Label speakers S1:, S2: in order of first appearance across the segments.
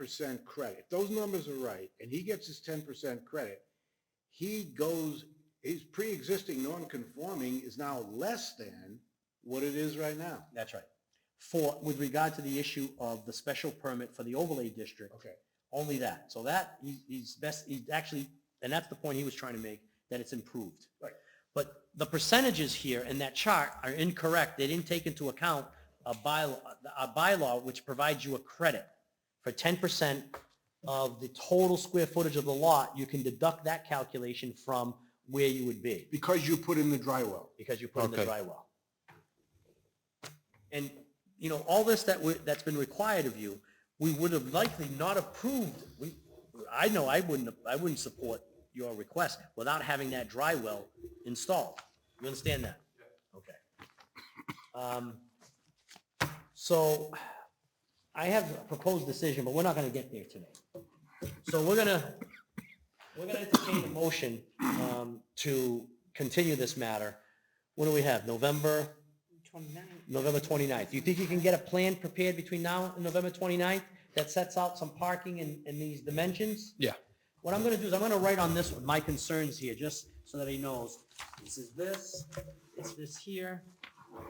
S1: percent credit, those numbers are right, and he gets his ten percent credit, he goes, his pre-existing non-conforming is now less than what it is right now.
S2: That's right. For, with regard to the issue of the special permit for the overlay district,
S1: Okay.
S2: only that. So that, he- he's best, he's actually, and that's the point he was trying to make, that it's improved.
S1: Right.
S2: But the percentages here in that chart are incorrect. They didn't take into account a bylaw, a bylaw which provides you a credit for ten percent of the total square footage of the lot. You can deduct that calculation from where you would be
S1: Because you put in the dry well.
S2: because you put in the
S3: Okay.
S2: dry well. And, you know, all this that, we- that's been required of you, we would have likely not approved, we, I know I wouldn't, I wouldn't support your request without having that dry well installed. You understand that? Okay. Um, So I have a proposed decision, but we're not going to get there today. So we're going to, we're going to entertain a motion um, to continue this matter. What do we have, November? 29th. November 29th. Do you think you can get a plan prepared between now and November 29th that sets out some parking in, in these dimensions?
S3: Yeah.
S2: What I'm gonna do is I'm gonna write on this one, my concerns here, just so that he knows. This is this, it's this here,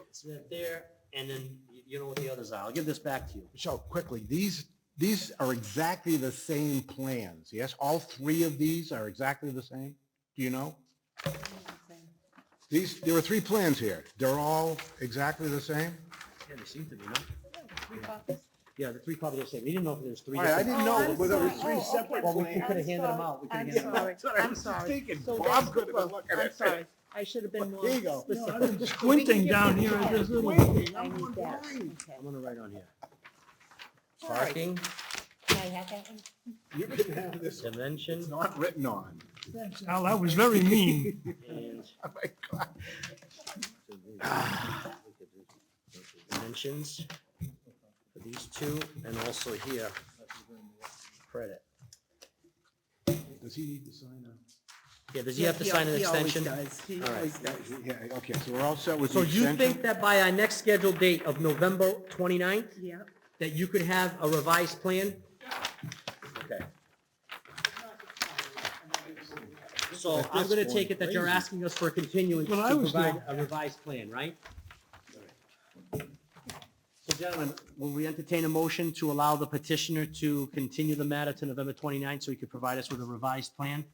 S2: it's that there, and then you- you know what the others are. I'll give this back to you.
S1: Michelle, quickly, these, these are exactly the same plans, yes? All three of these are exactly the same? Do you know? These, there were three plans here. They're all exactly the same?
S2: Yeah, they seem to be, no? Yeah, the three probably the same. We didn't know if there was three.
S1: All right, I
S2: different-
S1: didn't
S4: Oh,
S1: know
S4: I'm
S1: whether it was
S4: sorry.
S1: three
S4: Oh, okay.
S1: separate
S2: Well, we
S1: plans.
S2: we could have handed them out. We could have
S4: I'm
S2: handed them out.
S4: sorry,
S1: That's what I
S4: I'm
S1: was
S4: sorry.
S1: thinking.
S4: So
S1: Bob
S4: that's-
S1: could have been looking
S4: I'm
S1: at
S4: sorry, I should have been more
S1: There you go.
S4: specific.
S5: squinting down here at this little.
S4: I need that.
S2: I'm gonna write on here. Parking,
S4: Can I have that one?
S1: You can have this, one. it's
S2: dimension,
S1: not written on.
S5: Al, that was very mean.
S2: and
S1: Oh my God.
S2: dimensions for these two, and also here, credit.
S1: Does he need to sign up?
S2: Yeah, does he have to sign an extension?
S4: He
S2: All right.
S4: always does.
S1: Yeah, okay, so we're all set with
S2: So
S1: the
S2: you
S1: extension?
S2: think that by our next scheduled date of November 29th,
S4: Yeah.
S2: that you could have a revised plan? Okay. So I'm gonna take it that you're asking us for a continuance
S5: Well, I
S2: to
S5: was
S2: provide
S5: not-
S2: a revised plan, right? So gentlemen, will we entertain a motion to allow the petitioner to continue the matter to November 29th so he could provide us with a revised plan?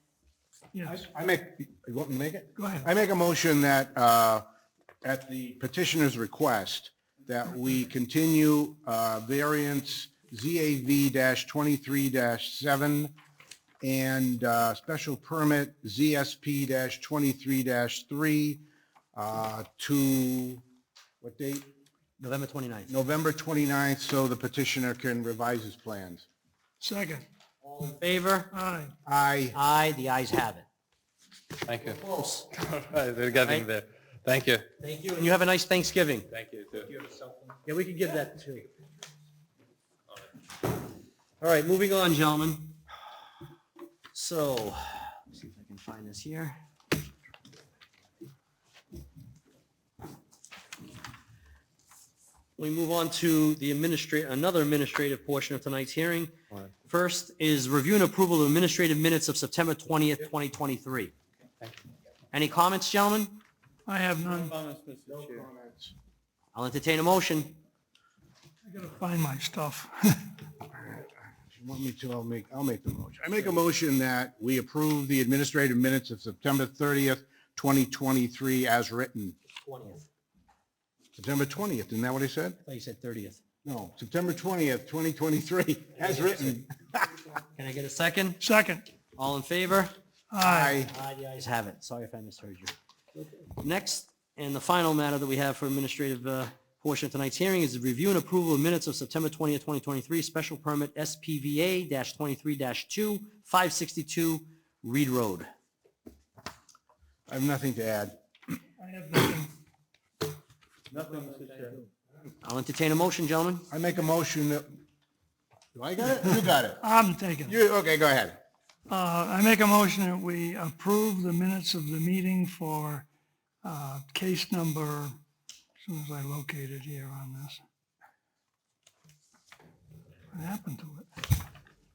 S5: Yes,
S1: I make, you want me to make it?
S5: go ahead.
S1: I make a motion that, uh, at the petitioner's request, that we continue uh, variance ZAV-23-7 and uh, special permit ZSP-23-3 uh, to, what date?
S2: November 29th.
S1: November 29th, so the petitioner can revise his plans.
S5: Second,
S2: All in favor?
S5: aye.
S1: I,
S2: Aye, the ayes have it.
S3: Thank you.
S2: Close.
S3: They're getting
S2: Right.
S3: there. Thank you.
S2: Thank you, and you have a nice Thanksgiving.
S3: Thank you, too.
S2: Yeah, we could give that to you. All right, moving on, gentlemen. So, let's see if I can find this here. We move on to the administrate, another administrative portion of tonight's hearing. First is review and approval of administrative minutes of September 20th, 2023. Any comments, gentlemen?
S5: I have none.
S2: I'll entertain a motion.
S5: I gotta find my stuff.
S1: if you want me to, I'll make, I'll make the motion. I make a motion that we approve the administrative minutes of September 30th, 2023 as written.
S2: 20th.
S1: September 20th, isn't that what I said?
S2: I thought you said 30th.
S1: No, September 20th, 2023, as written.
S2: Can I get a second?
S5: Second,
S2: All in favor?
S5: aye.
S1: I,
S2: Aye, the ayes have it. Sorry if I misheard you. Next, and the final matter that we have for administrative uh, portion of tonight's hearing is the review and approval of minutes of September 20th, 2023, special permit SPVA-23-2, 562 Reed Road.
S1: I have nothing to add.
S5: I have nothing.
S2: I'll entertain a motion, gentlemen.
S1: I make a motion that, do I got it? You got it.
S5: I'm taking. it.
S1: You, okay, go ahead.
S5: Uh, I make a motion that we approve the minutes of the meeting for, uh, case number, as soon as I locate it here on this. What happened to it?